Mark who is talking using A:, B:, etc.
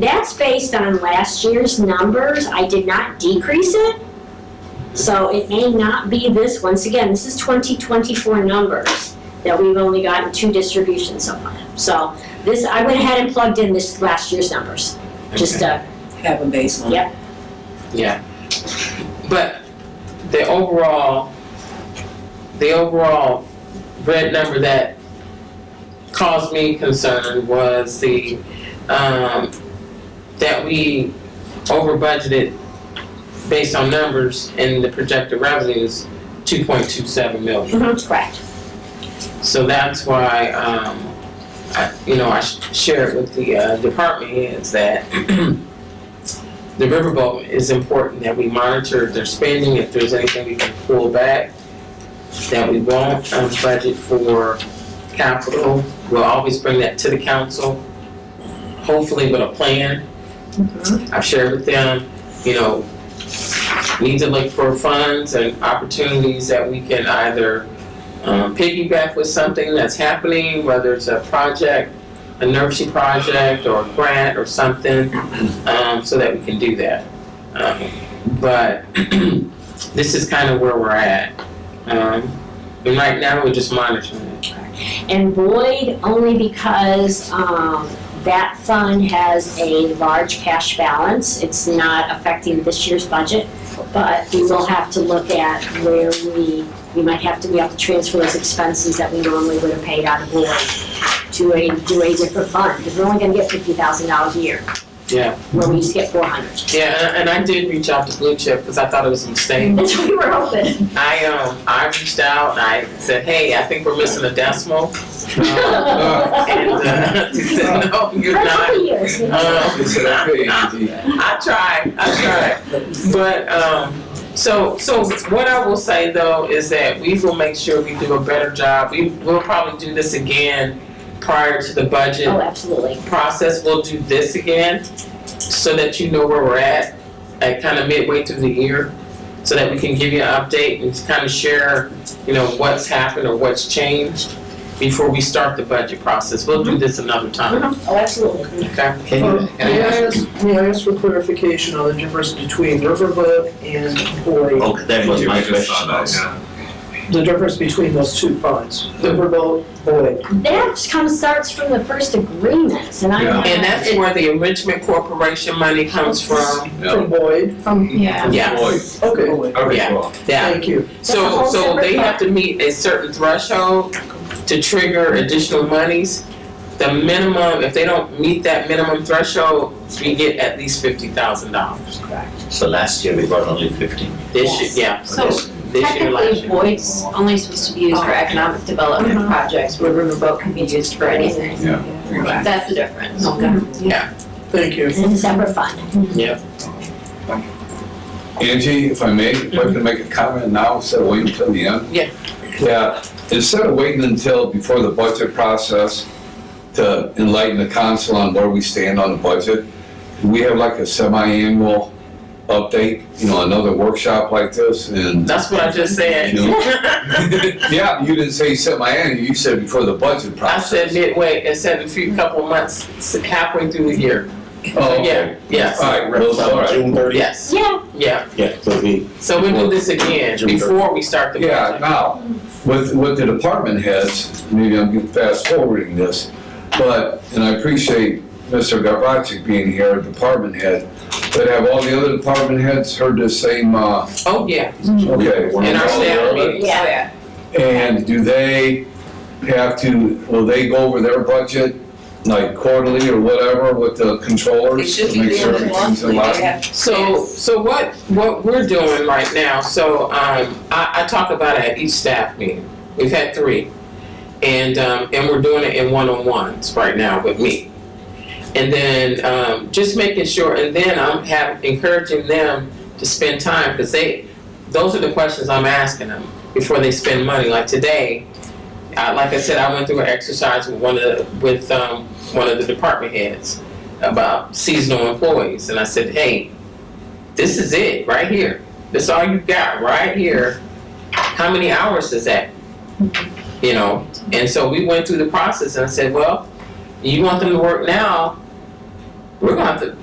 A: That's based on last year's numbers. I did not decrease it. So it may not be this, once again, this is 2024 numbers that we've only gotten two distributions so far. So this, I went ahead and plugged in this last year's numbers, just uh
B: have a baseline.
A: Yep.
C: But the overall, the overall red number that caused me concern was the, um, that we over budgeted based on numbers and the projected revenues, two point two seven million.
A: mhm, correct.
C: So that's why, um, I, you know, I sh- share it with the, uh, department heads that the riverboat is important, that we monitor their spending, if there's anything we can pull back, that we won't, um, budget for capital, we'll always bring that to the council, hopefully with a plan. I've shared with them, you know, need to look for funds and opportunities that we can either um, piggyback with something that's happening, whether it's a project, a nursery project or a grant or something, um, so that we can do that. Um, but this is kind of where we're at. Um, and right now, we're just monitoring it.
A: And Boyd, only because um, that fund has a large cash balance. It's not affecting this year's budget, but we will have to look at where we, we might have to, we have to transfer those expenses that we normally would have paid out of Boyd to a, to a different fund, because we're only gonna get fifty thousand dollars a year.
C: Yeah.
A: Where we used to get four hundred.
C: Yeah, and- and I did reach out to Blue Chip because I thought it was a mistake.
A: That's what we were hoping.
C: I, um, I reached out and I said, hey, I think we're missing a decimal. Um, and uh, she said, no, you're
A: For a
C: not.
A: couple years. we-
C: Um,
D: It's okay, Angie.
C: I tried, I tried. But, um, so, so what I will say though is that we will make sure we do a better job. We will probably do this again prior to the
A: Oh,
C: budget
A: absolutely.
C: process. We'll do this again so that you know where we're at, at kind of midway through the year. So that we can give you an update and kind of share, you know, what's happened or what's changed before we start the budget process. We'll do this another time,
A: Oh, absolutely.
C: okay?
E: Um, May I ask, may I ask for clarification on the difference between riverboat and Boyd?
F: Oh, that was my question also.
E: The difference between those two funds, riverboat, Boyd.
A: That comes, starts from the first agreements, and I.
D: Yeah.
C: And that's where the enrichment corporation money comes from.
D: Yeah.
E: From Boyd,
A: From, yeah.
C: Yes.
E: okay,
D: Okay,
C: Yeah.
D: well,
C: Yeah.
E: thank you.
A: That's a
C: So,
A: whole
C: so
A: separate
C: they have to meet a certain threshold to trigger additional monies. The minimum, if they don't meet that minimum threshold, we get at least fifty thousand dollars.
F: So last year we got only fifteen.
C: This year, yeah,
G: So
C: this year, last
G: technically,
C: year.
G: Boyd's only supposed to be used
A: Oh,
G: for economic development projects, where Riverboat can be used for anything.
D: Yeah.
G: That's the difference.
E: Thank you.
A: It's a separate fund.
D: Angie, if I may, if I can make a comment now instead of waiting until the end?
C: Mm-hmm. Yeah.
D: Yeah, instead of waiting until before the budget process to enlighten the council on where we stand on the budget, we have like a semi-annual update, you know, another workshop like this and,
C: That's what I just said.
D: yeah, you didn't say semi-annual, you said before the budget
C: I said
D: process.
C: midway, I said a few couple months, halfway through the year.
D: Oh,
C: So,
D: okay.
C: yeah, yes,
D: All right,
F: Those
D: all
F: are
D: right.
F: June thirty?
C: yes,
A: Yeah,
C: yeah.
F: Yeah, so we,
C: So we do this again before we start the budget.
D: Yeah, now, with, with the department heads, maybe I'm fast forwarding this, but, and I appreciate Mr. Gavrotic being here, a department head, but have all the other department heads heard the same, uh,
C: Oh, yeah,
D: okay?
C: in our staff meeting.
G: Yeah.
D: And do they have to, will they go over their budget, like quarterly or whatever, with the controllers?
B: They should
D: to
B: be
D: make sure
B: doing it
D: everything's in
B: monthly,
D: line?
B: they have to.
C: So, so what, what we're doing right now, so, um, I, I talk about it at each staff meeting. We've had three. And, um, and we're doing it in one-on-ones right now with me. And then, um, just making sure, and then I'm have, encouraging them to spend time, cause they, those are the questions I'm asking them before they spend money. Like today, I, like I said, I went through an exercise with one of, the- with, um, one of the department heads about seasonal employees. And I said, hey, this is it right here. This all you got right here. How many hours is that? You know, and so we went through the process and I said, well, you want them to work now, we're gonna have to